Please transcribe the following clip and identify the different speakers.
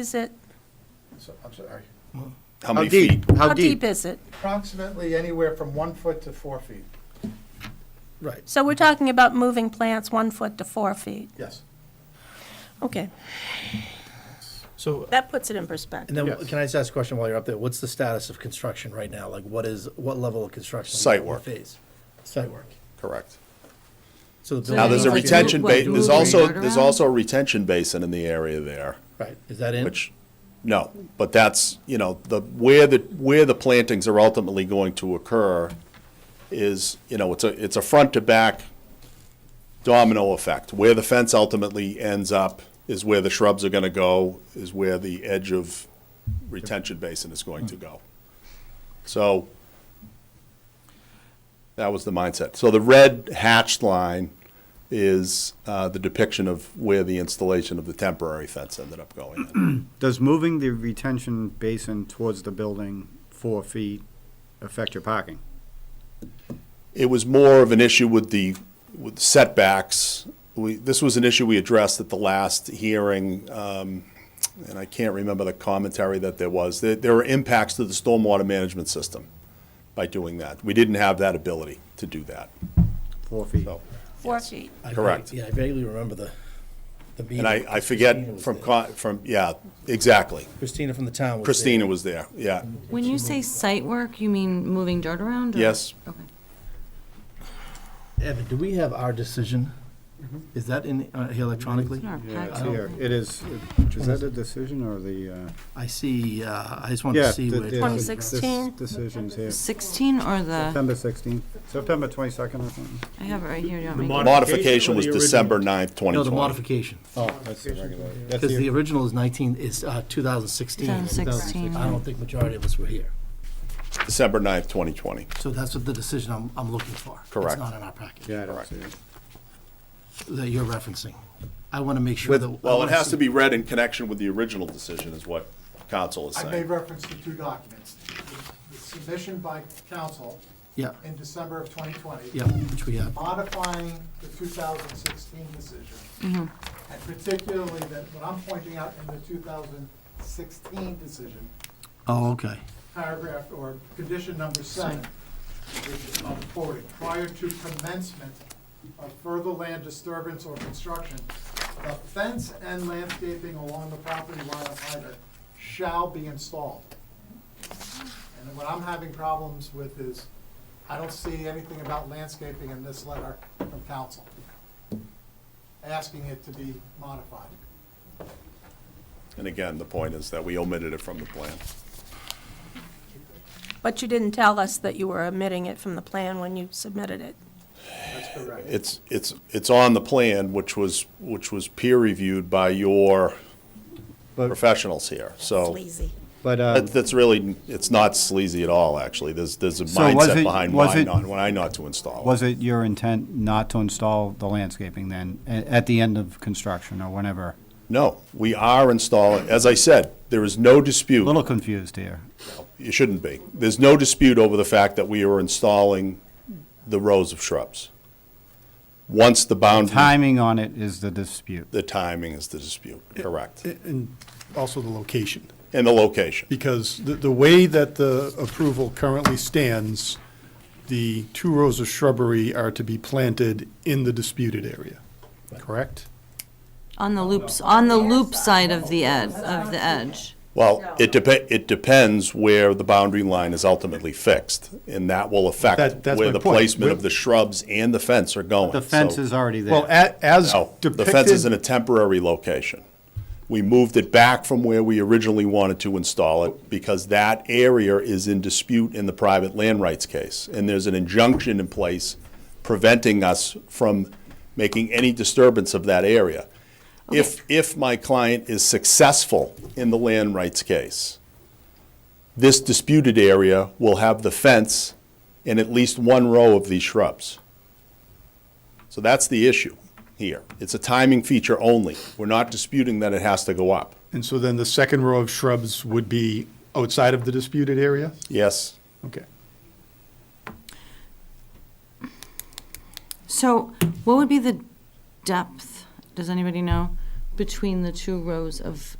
Speaker 1: is it?
Speaker 2: So, I'm sorry.
Speaker 3: How many feet?
Speaker 1: How deep is it?
Speaker 2: Approximately anywhere from one foot to four feet.
Speaker 4: Right.
Speaker 1: So we're talking about moving plants one foot to four feet.
Speaker 2: Yes.
Speaker 1: Okay,
Speaker 4: So,
Speaker 1: that puts it in
Speaker 4: and
Speaker 1: perspective.
Speaker 4: then,
Speaker 2: Yes.
Speaker 4: can I just ask a question while you're up there? What's the status of construction right now? Like, what is, what level of construction?
Speaker 3: Site
Speaker 4: What
Speaker 3: work.
Speaker 4: Phase? Site work.
Speaker 3: Correct.
Speaker 4: So the
Speaker 3: Now,
Speaker 4: building-
Speaker 3: there's a
Speaker 5: Like,
Speaker 3: retention
Speaker 5: what,
Speaker 3: ba,
Speaker 5: do
Speaker 3: there's
Speaker 5: we
Speaker 3: also,
Speaker 5: turn
Speaker 3: there's
Speaker 5: around?
Speaker 3: also a retention basin in the area there,
Speaker 4: Right, is that in?
Speaker 3: which, no, but that's, you know, the, where the, where the plantings are ultimately going to occur is, you know, it's a, it's a front to back domino effect. Where the fence ultimately ends up is where the shrubs are gonna go, is where the edge of retention basin is going to go. So that was the mindset. So the red hatched line is uh, the depiction of where the installation of the temporary fence ended up going in.
Speaker 6: Does moving the retention basin towards the building four feet affect your parking?
Speaker 3: It was more of an issue with the with setbacks. We, this was an issue we addressed at the last hearing, um, and I can't remember the commentary that there was. There, there were impacts to the stormwater management system by doing that. We didn't have that ability to do that.
Speaker 6: Four feet?
Speaker 3: So,
Speaker 1: Four feet.
Speaker 4: I vague-
Speaker 3: correct.
Speaker 4: Yeah, I vaguely remember the, the meeting.
Speaker 3: and I, I
Speaker 4: Christina
Speaker 3: forget
Speaker 4: was
Speaker 3: from
Speaker 4: there.
Speaker 3: co- from yeah, exactly.
Speaker 4: Christina from the town was there.
Speaker 3: Christina was there. Yeah.
Speaker 5: When you say site work, you mean moving dirt around? or-
Speaker 3: Yes.
Speaker 5: Okay.
Speaker 4: Evan, do we have our decision? Is that in, uh, here electronically?
Speaker 5: It's in our
Speaker 6: Yeah, it's
Speaker 5: packet.
Speaker 6: here. It is, is that a decision or the, uh?
Speaker 4: I see, uh, I just wanted
Speaker 6: yeah,
Speaker 4: to see
Speaker 6: the-
Speaker 4: where.
Speaker 6: the-
Speaker 4: it was.
Speaker 1: 2016.
Speaker 6: this Decision's here.
Speaker 5: 16 or the,
Speaker 6: September sixteenth, September twenty-second, I think.
Speaker 5: I have it right here, do you want me? to-
Speaker 3: Modification was December 9th, 2020.
Speaker 4: No, the modification,
Speaker 6: Oh, that's the regular. That's
Speaker 4: because
Speaker 6: the-
Speaker 4: the original is nineteen, is uh, 2016.
Speaker 5: 2016,
Speaker 4: I don't think majority of us were here.
Speaker 3: December 9th, 2020.
Speaker 4: So that's what the decision I'm, I'm looking for.
Speaker 3: Correct.
Speaker 4: It's not in our package.
Speaker 6: Yeah, I don't see it.
Speaker 4: that you're referencing. I want to make sure
Speaker 3: With,
Speaker 4: that. I
Speaker 3: well, it
Speaker 4: wanna
Speaker 3: has
Speaker 4: see-
Speaker 3: to be read in connection with the original decision is what council is
Speaker 2: I made
Speaker 3: saying.
Speaker 2: reference to two documents. The Submission by council
Speaker 4: Yeah,
Speaker 2: in December of 2020.
Speaker 4: yeah, which we have.
Speaker 2: Modifying the 2016 decision. And particularly that, what I'm pointing out in the 2016 decision,
Speaker 4: Oh, okay.
Speaker 2: paragraph or condition number seven, which is on forwarding, prior to commencement of further land disturbance or construction, the fence and landscaping along the property line of hydrant shall be installed. And what I'm having problems with is, I don't see anything about landscaping in this letter from council, asking it to be modified.
Speaker 3: And again, the point is that we omitted it from the plan.
Speaker 1: But you didn't tell us that you were omitting it from the plan when you submitted it.
Speaker 2: That's correct.
Speaker 3: It's, it's, it's on the plan, which was, which was peer reviewed by your
Speaker 6: But-
Speaker 3: professionals here. So
Speaker 6: But, um,
Speaker 3: that- that's really, it's not sleazy at all, actually. There's, there's a
Speaker 6: So was
Speaker 3: mindset
Speaker 6: it-
Speaker 3: behind
Speaker 6: was
Speaker 3: why
Speaker 6: it-
Speaker 3: not, why not to install. it.
Speaker 6: was it your intent not to install the landscaping then, a- at the end of construction or whenever?
Speaker 3: No, we are installing, as I said, there is no dispute.
Speaker 6: A Little confused here.
Speaker 3: It shouldn't be. There's no dispute over the fact that we are installing the rows of shrubs. Once the boundary,
Speaker 6: Timing on it is the dispute.
Speaker 3: the timing is the dispute, correct.
Speaker 7: And also the location,
Speaker 3: And the location.
Speaker 7: because the, the way that the approval currently stands, the two rows of shrubbery are to be planted in the disputed area, correct?
Speaker 5: On the loops, on the loop side of the edge, of the edge.
Speaker 3: Well, it depe, it depends where the boundary line is ultimately fixed, and that will
Speaker 7: That-
Speaker 3: affect
Speaker 7: that's
Speaker 3: where
Speaker 7: my
Speaker 3: the
Speaker 7: point.
Speaker 3: placement of
Speaker 7: We're-
Speaker 3: the shrubs and the fence are going.
Speaker 6: The fence
Speaker 3: So-
Speaker 6: is already there.
Speaker 7: Well, a, as
Speaker 3: No, the
Speaker 7: depicted.
Speaker 3: fence is in a temporary location. We moved it back from where we originally wanted to install it because that area is in dispute in the private land rights case. And there's an injunction in place preventing us from making any disturbance of that area. If, if my client is successful in the land rights case, this disputed area will have the fence and at least one row of these shrubs. So that's the issue here. It's a timing feature only. We're not disputing that it has to go up.
Speaker 7: And so then the second row of shrubs would be outside of the disputed area?
Speaker 3: Yes,
Speaker 7: Okay.
Speaker 5: So what would be the depth, does anybody know, between the two rows of